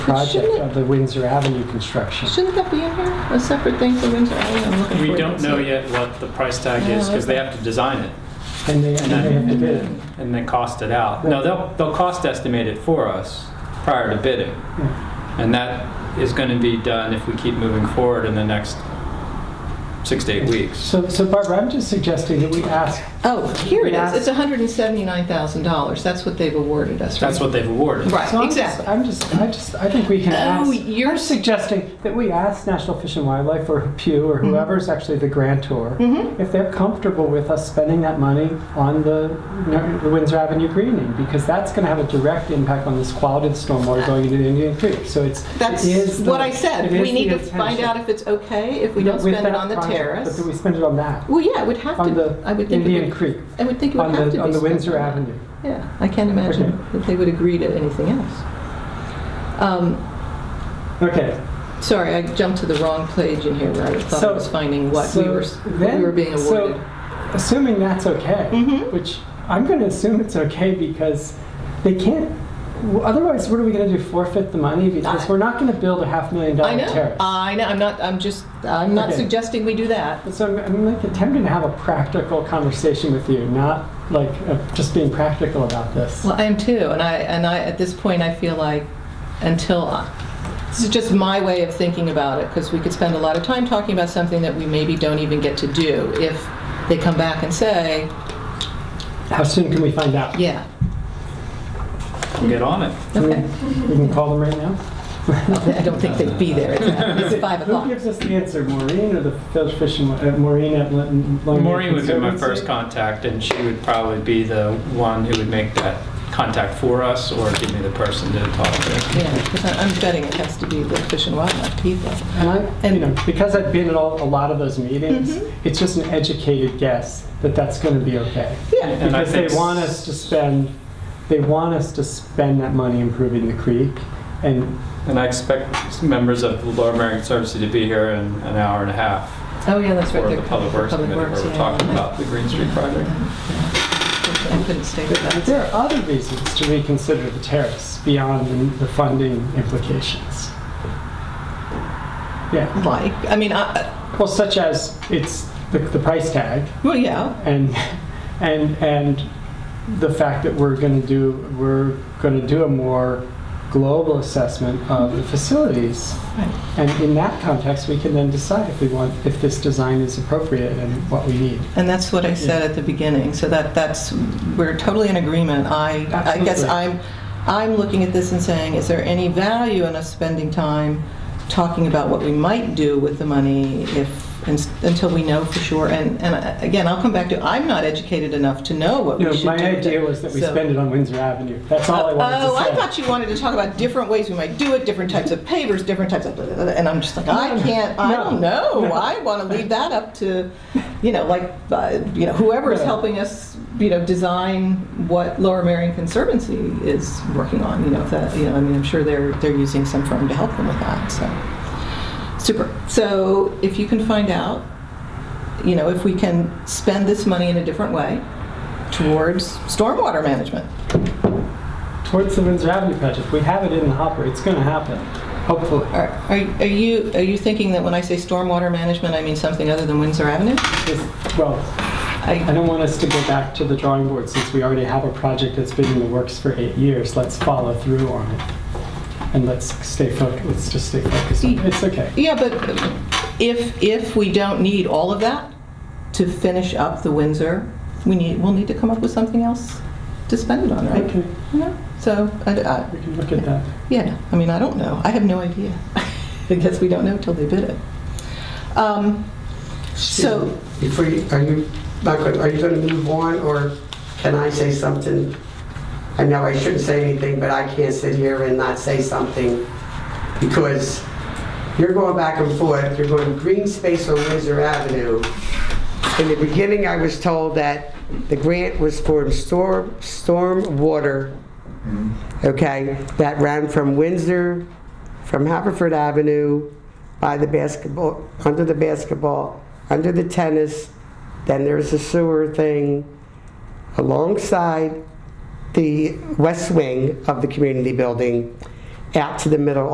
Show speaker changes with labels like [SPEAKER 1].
[SPEAKER 1] project
[SPEAKER 2] Shouldn't it-
[SPEAKER 1] of the Windsor Avenue construction.
[SPEAKER 2] Shouldn't that be in here? A separate thing for Windsor Avenue? I'm looking for
[SPEAKER 3] We
[SPEAKER 2] it.
[SPEAKER 3] don't know yet what the price tag is because they have to design it
[SPEAKER 1] And they, and they have to
[SPEAKER 3] and
[SPEAKER 1] bid.
[SPEAKER 3] then, and then cost it out. No, they'll, they'll cost estimate it for us prior to bidding.
[SPEAKER 2] Hmm.
[SPEAKER 3] And that is going to be done if we keep moving forward in the next six to eight weeks.
[SPEAKER 1] So, so Barbara, I'm just suggesting that we ask,
[SPEAKER 2] Oh, here it
[SPEAKER 1] Yes.
[SPEAKER 2] is. It's $179,000. That's what they've awarded us, right?
[SPEAKER 3] That's what they've awarded.
[SPEAKER 2] Right,
[SPEAKER 1] so I'm just,
[SPEAKER 2] exactly. Oh,
[SPEAKER 1] I'm just, I just, I think we can ask.
[SPEAKER 2] you're
[SPEAKER 1] I'm suggesting that we ask National Fish and Wildlife or Pew
[SPEAKER 2] Mm-hmm.
[SPEAKER 1] or whoever's actually the grantor, if they're comfortable with us spending that money on the, the Windsor Avenue greening, because that's gonna have a direct impact on this quality of stormwater going into the Indian Creek, so it's. it
[SPEAKER 2] That's
[SPEAKER 1] is the-
[SPEAKER 2] what I said.
[SPEAKER 1] it is
[SPEAKER 2] We need
[SPEAKER 1] the
[SPEAKER 2] to find
[SPEAKER 1] intention.
[SPEAKER 2] out if it's okay, if we don't
[SPEAKER 1] With
[SPEAKER 2] spend it
[SPEAKER 1] that
[SPEAKER 2] on the
[SPEAKER 1] project, But
[SPEAKER 2] terrace.
[SPEAKER 1] do we spend it on that,
[SPEAKER 2] Well, yeah, it would have
[SPEAKER 1] on
[SPEAKER 2] to,
[SPEAKER 1] the
[SPEAKER 2] I would think it
[SPEAKER 1] Indian
[SPEAKER 2] would,
[SPEAKER 1] Creek?
[SPEAKER 2] I would think it
[SPEAKER 1] on
[SPEAKER 2] would have to be
[SPEAKER 1] the,
[SPEAKER 2] spent.
[SPEAKER 1] on the Windsor
[SPEAKER 2] on that.
[SPEAKER 1] Avenue.
[SPEAKER 2] Yeah, I can't imagine
[SPEAKER 1] Okay.
[SPEAKER 2] that they would agree to anything else. Um,
[SPEAKER 1] Okay,
[SPEAKER 2] Sorry, I jumped to the wrong page in here where I thought I
[SPEAKER 1] So-
[SPEAKER 2] was finding what we
[SPEAKER 1] so
[SPEAKER 2] were,
[SPEAKER 1] then-
[SPEAKER 2] we were being
[SPEAKER 1] so
[SPEAKER 2] awarded.
[SPEAKER 1] assuming that's okay,
[SPEAKER 2] Mhm.
[SPEAKER 1] which I'm going to assume it's okay because they can't. w- Otherwise, what are we going to do? Forfeit the money because
[SPEAKER 2] I-
[SPEAKER 1] we're not going to build a half million dollar
[SPEAKER 2] I know.
[SPEAKER 1] terrace.
[SPEAKER 2] I know. I'm not. I'm just. I'm not
[SPEAKER 1] Okay.
[SPEAKER 2] suggesting we do that.
[SPEAKER 1] so I'm, I'm like attempting to have a practical conversation with you, not like uh, just being practical about this.
[SPEAKER 2] Well, I am too, and I and I at this point I feel like until I, this is just my way of thinking about it because we could spend a lot of time talking about something that we maybe don't even get to do if they come back and say,
[SPEAKER 1] How soon can we find out?
[SPEAKER 2] yeah,
[SPEAKER 3] We'll get on it.
[SPEAKER 1] Can
[SPEAKER 2] okay.
[SPEAKER 1] we, we can call them right now.
[SPEAKER 2] I don't think they'd be there. It's five
[SPEAKER 1] Who
[SPEAKER 2] o'clock.
[SPEAKER 1] gives us the answer, Maureen or the fish- fish and uh, Maureen at Lon- Long
[SPEAKER 3] Maureen would be my
[SPEAKER 1] Conservancy?
[SPEAKER 3] first contact and she would probably be the one who would make that contact for us or give me the person to talk to.
[SPEAKER 2] Yeah, because I'm betting it has to be the Fish and Wildlife people.
[SPEAKER 1] And I, you know, because I've been at all, a lot of those meetings, it's just an educated guess that that's going to be okay.
[SPEAKER 2] Yeah.
[SPEAKER 3] And I
[SPEAKER 1] Because they
[SPEAKER 3] think-
[SPEAKER 1] want us to spend, they want us to spend that money improving the creek. And
[SPEAKER 3] And I expect members of the Lower Merion Conservancy to be here in an hour and a half.
[SPEAKER 2] Oh, yeah, that's right.
[SPEAKER 3] for the
[SPEAKER 2] they're-
[SPEAKER 3] Public Works Committee where
[SPEAKER 2] Works,
[SPEAKER 3] we're
[SPEAKER 2] yeah.
[SPEAKER 3] talking about the Green Street project.
[SPEAKER 2] I couldn't stay with that.
[SPEAKER 1] there are other reasons to reconsider the terrace beyond the- the funding implications. Yeah,
[SPEAKER 2] like. I mean, I,
[SPEAKER 1] well, such as it's the, the price tag.
[SPEAKER 2] well, yeah,
[SPEAKER 1] and and and the fact that we're going to do we're going to do a more global assessment of the facilities
[SPEAKER 2] Right.
[SPEAKER 1] and in that context we can then decide if we want if this design is appropriate and what we need
[SPEAKER 2] and that's what I said at the beginning. So that that's we're totally in agreement. I I guess
[SPEAKER 1] Absolutely.
[SPEAKER 2] I'm I'm looking at this and saying, is there any value in us spending time talking about what we might do with the money if ins- until we know for sure? And and I- again, I'll come back to I'm not educated enough to know what
[SPEAKER 1] you
[SPEAKER 2] we
[SPEAKER 1] know,
[SPEAKER 2] should
[SPEAKER 1] my
[SPEAKER 2] do. with
[SPEAKER 1] idea
[SPEAKER 2] it.
[SPEAKER 1] was that we
[SPEAKER 2] So-
[SPEAKER 1] spend it on windsor avenue that's all i wanted
[SPEAKER 2] Oh,
[SPEAKER 1] to say
[SPEAKER 2] I thought you wanted to talk about different ways we might do it, different types of pavers, different types of, blah, blah, blah, and I'm just like, I can't, I don't know. I want to leave that up to, you know, like, uh, you know, whoever's
[SPEAKER 1] Yeah.
[SPEAKER 2] helping us, you know, design what Lower Marion Conservancy is working on, you know, if that, you know, I mean, I'm sure they're, they're using some firm to help them with that, so. Super. So if you can find out, you know, if we can spend this money in a different way towards stormwater management.
[SPEAKER 1] towards the windsor avenue project we have it in the hopper it's going to happen hopefully
[SPEAKER 2] Are are are you, are you thinking that when I say stormwater management, I mean something other than Windsor Avenue?
[SPEAKER 1] Just- well I
[SPEAKER 2] I
[SPEAKER 1] don't want us to go back to the drawing board since we already have a project that's been in the works for eight years. Let's follow through on it. And let's stay focused, let's just stay focused. on it. It's okay.
[SPEAKER 2] Yeah, but if, if we don't need all of that to finish up the Windsor, we need, we'll need to come up with something else to spend it on, right?
[SPEAKER 1] Okay,
[SPEAKER 2] You know? So, I- I-
[SPEAKER 1] we can look at that.
[SPEAKER 2] yeah, I mean, I don't know. I have no idea. I guess we don't know till they bid it. Um, So,
[SPEAKER 4] Before you, are you, not good, are you going to move on, or can I say something? I know I shouldn't say anything, but I can't sit here and not say something, because you're going back and forth, you're going green space on Windsor Avenue. In the beginning, I was told that the grant was for storm, storm water, okay, that ran from Windsor, from Haverford Avenue, by the basketball, under the basketball, under the tennis, then there's a sewer thing alongside the west wing of the community building, out to the middle